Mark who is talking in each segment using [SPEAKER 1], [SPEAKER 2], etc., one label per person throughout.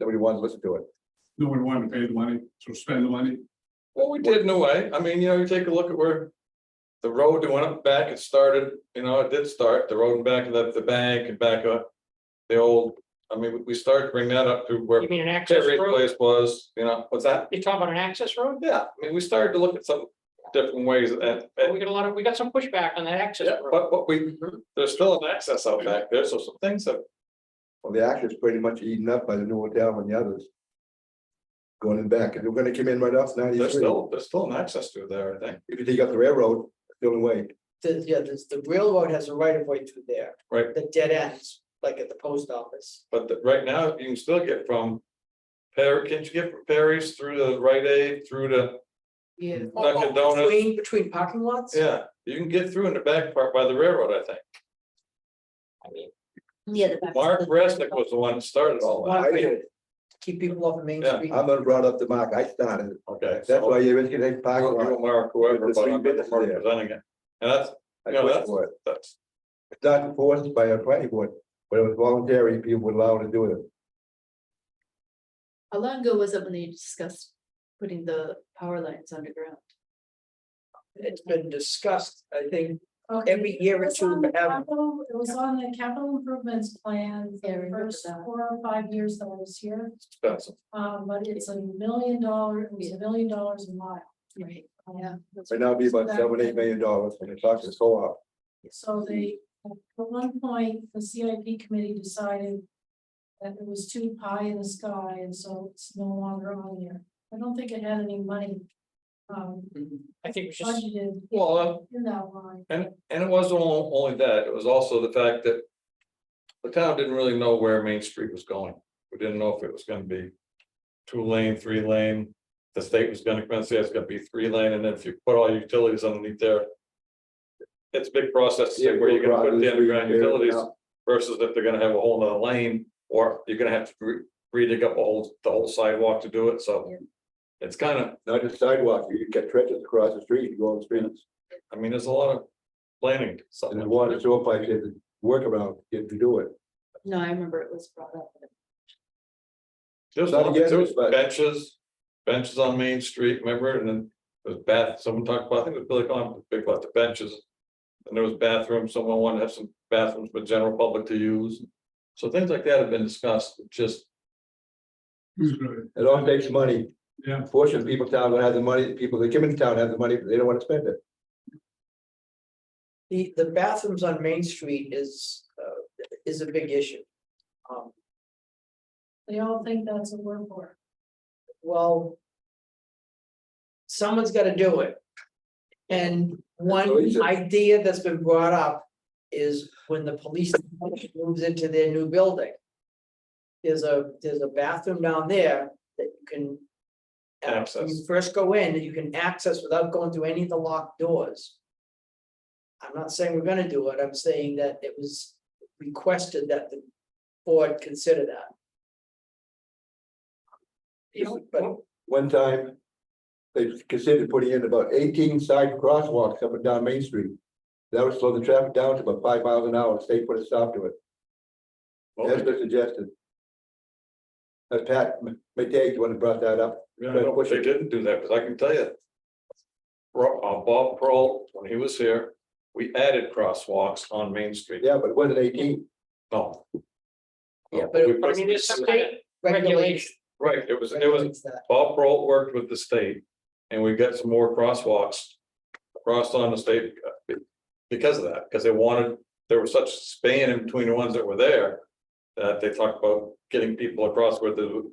[SPEAKER 1] Nobody wanted to listen to it.
[SPEAKER 2] No one wanted to pay the money, so spend the money.
[SPEAKER 3] Well, we did in a way. I mean, you know, you take a look at where. The road that went up back, it started, you know, it did start, the road and back of the, the bank and back up. The old, I mean, we- we started to bring that up to where
[SPEAKER 4] You mean an access
[SPEAKER 3] Terry's
[SPEAKER 4] road?
[SPEAKER 3] place was, you know, what's that?
[SPEAKER 4] You talking about an access road?
[SPEAKER 3] Yeah, I mean, we started to look at some different ways at, at
[SPEAKER 4] We got a lot of, we got some pushback on that access
[SPEAKER 3] Yeah,
[SPEAKER 4] road.
[SPEAKER 3] but, but we,
[SPEAKER 4] Mm-hmm.
[SPEAKER 3] there's still an access out back there, so some things have,
[SPEAKER 1] Well, the access pretty much eaten up by the new hotel and the others. Going in back, and they're gonna come in right off
[SPEAKER 3] there's
[SPEAKER 1] ninety-three.
[SPEAKER 3] still, there's still an access to there, I think,
[SPEAKER 1] If you take up the railroad, it's the only way.
[SPEAKER 5] the, yeah, this, the railroad has a right of way through there.
[SPEAKER 3] Right.
[SPEAKER 5] The dead ends, like at the post office.
[SPEAKER 3] but the- right now, you can still get from. Perry, can't you get from Perry's through the Rite Aid, through the,
[SPEAKER 5] Yeah.
[SPEAKER 3] Dunkin' Donuts.
[SPEAKER 5] Between, between parking lots?
[SPEAKER 3] Oh, yeah, you can get through in the back part by the railroad, I think.
[SPEAKER 6] Yeah. the back-
[SPEAKER 3] Mark
[SPEAKER 6] the-
[SPEAKER 3] Resnick was the one that started all that,
[SPEAKER 5] Why
[SPEAKER 1] I
[SPEAKER 5] we
[SPEAKER 1] did.
[SPEAKER 5] Keep people off of Main
[SPEAKER 3] Yeah,
[SPEAKER 5] Street.
[SPEAKER 1] I'm gonna brought up the mark, I started, it.
[SPEAKER 3] okay.
[SPEAKER 1] that's
[SPEAKER 3] so-
[SPEAKER 1] why you're gonna take
[SPEAKER 3] I
[SPEAKER 1] park.
[SPEAKER 3] don't know Mark, whoever,
[SPEAKER 1] With the
[SPEAKER 3] but I'm
[SPEAKER 1] three businesses there.
[SPEAKER 3] representing it, and that's,
[SPEAKER 1] I
[SPEAKER 3] Yeah,
[SPEAKER 1] pushed for it.
[SPEAKER 3] that's,
[SPEAKER 1] It's not enforced by a planning board, but it was voluntary, people were allowed to do it.
[SPEAKER 6] How long ago was it when they discussed putting the power lines underground?
[SPEAKER 5] It's been discussed, I think, every year or
[SPEAKER 7] It was
[SPEAKER 5] two
[SPEAKER 7] on the
[SPEAKER 5] we have-
[SPEAKER 7] capital- it was on the capital improvements plan
[SPEAKER 6] Yeah, I
[SPEAKER 7] for the
[SPEAKER 6] remember
[SPEAKER 7] first
[SPEAKER 6] that.
[SPEAKER 7] four or five years that I was here.
[SPEAKER 3] that's,
[SPEAKER 7] Um, but it's a million dollar, it was a million dollars a mile.
[SPEAKER 6] Right,
[SPEAKER 7] Um,
[SPEAKER 6] yeah. that's
[SPEAKER 1] Right now, it'd be about seven, eight million dollars, and it's talking so out.
[SPEAKER 7] So they, at one point, the CIP committee decided that it was too high in the sky, and so it's no longer on there. I don't think it had any money um,
[SPEAKER 4] I think we should,
[SPEAKER 7] budgeted
[SPEAKER 3] well, uh,
[SPEAKER 7] in that line.
[SPEAKER 3] And, and it wasn't on- only that, it was also the fact that. The town didn't really know where Main Street was going. We didn't know if it was gonna be. Two lane, three lane, the state was gonna come and say it's gonna be three lane, and then if you put all your utilities underneath there. It's a big process to say where you're gonna put the underground utilities versus if they're gonna have a whole nother lane. Or you're gonna have to re- re-dig up a whole, the whole sidewalk to do it, so.
[SPEAKER 6] Yeah.
[SPEAKER 3] It's kind of,
[SPEAKER 1] Not just sidewalk, you get trenches across the street, you go on the streets,
[SPEAKER 3] I mean, there's a lot of planning. so-
[SPEAKER 1] and the water, so if I did work around, get to do it.
[SPEAKER 6] No, I remember it was brought up.
[SPEAKER 3] There's
[SPEAKER 1] Not
[SPEAKER 3] one,
[SPEAKER 1] yet,
[SPEAKER 3] there was
[SPEAKER 1] but-
[SPEAKER 3] benches, benches on Main Street, remember, and then there's bath, someone talked about, I think it was Billy Collins, big about the benches. And there was bathrooms, someone wanted to have some bathrooms for general public to use, so things like that have been discussed, It's just,
[SPEAKER 2] Who's gonna,
[SPEAKER 1] It all takes money.
[SPEAKER 2] Yeah.
[SPEAKER 1] Fortunately, people in town don't have the money, people that come into town have the money, but they don't wanna spend it.
[SPEAKER 5] The, the bathrooms on Main Street is, uh, is a big issue. Um,
[SPEAKER 7] They all think that's a word for it.
[SPEAKER 5] well. Someone's gotta do it. And one idea that's been brought up is when the police moves into their new building. There's a, there's a bathroom down there that you can. uh, when You
[SPEAKER 3] Access.
[SPEAKER 5] first go in, you can access without going through any of the locked doors. I'm not saying we're gonna do it, I'm saying that it was requested that the board consider that.
[SPEAKER 4] you know,
[SPEAKER 5] But-
[SPEAKER 1] One time, they considered putting in about eighteen side crosswalks up and down Main Street. That would slow the traffic down to about five miles an hour, the state put a stop to it,
[SPEAKER 3] well,
[SPEAKER 1] that's been suggested. That's Pat McDade, the one who brought that up,
[SPEAKER 3] I don't wish they didn't do that, because I can tell you. Ro- uh, Bob Pearl, when he was here, we added crosswalks on Main Street,
[SPEAKER 1] yeah, but it wasn't eighteen,
[SPEAKER 3] no.
[SPEAKER 5] Yeah,
[SPEAKER 4] but
[SPEAKER 3] We
[SPEAKER 4] I
[SPEAKER 3] put-
[SPEAKER 4] mean, there's some kind of
[SPEAKER 5] Regulation.
[SPEAKER 4] regulation.
[SPEAKER 3] Right, it was, it was,
[SPEAKER 5] regulates that.
[SPEAKER 3] Bob Pearl worked with the state and we got some more crosswalks. Across on the state uh, because of that, because they wanted, there was such span in between the ones that were there. That they talked about getting people across where the,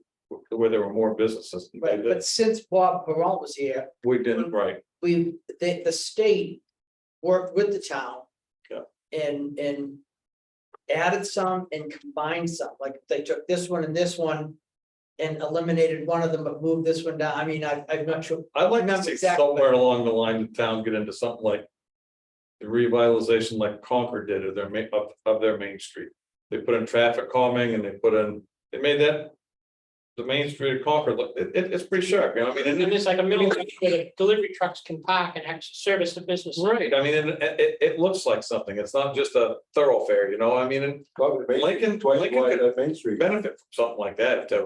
[SPEAKER 3] where there were more businesses. They
[SPEAKER 5] Right,
[SPEAKER 3] did-
[SPEAKER 5] but since Bob Perron was here,
[SPEAKER 3] We didn't, right,
[SPEAKER 5] we, the, the state worked with the town.
[SPEAKER 3] Yeah.
[SPEAKER 5] And, and added some and combined some, like they took this one and this one and eliminated one of them, but moved this one down. I mean, I, I'm not sure.
[SPEAKER 3] I'd like to
[SPEAKER 5] Remember
[SPEAKER 3] see
[SPEAKER 5] exactly.
[SPEAKER 3] somewhere along the line, the town get into something like. The revitalization like Concord did of their main, of, of their main street. They put in traffic calming and they put in, they made that. The main street of Concord, look, it, it- it's pretty sharp, you know, I mean, and
[SPEAKER 4] And
[SPEAKER 3] it-
[SPEAKER 4] there's like a middle section where the delivery trucks can park and actually service the business.
[SPEAKER 3] Right, I mean, and it, it, it looks like something. It's not just a thoroughfare, you know, I mean, and
[SPEAKER 1] probably Main Street,
[SPEAKER 3] Lincoln,
[SPEAKER 1] twice
[SPEAKER 3] Lincoln
[SPEAKER 1] wide
[SPEAKER 3] could
[SPEAKER 1] of Main Street.
[SPEAKER 3] benefit from something like that if that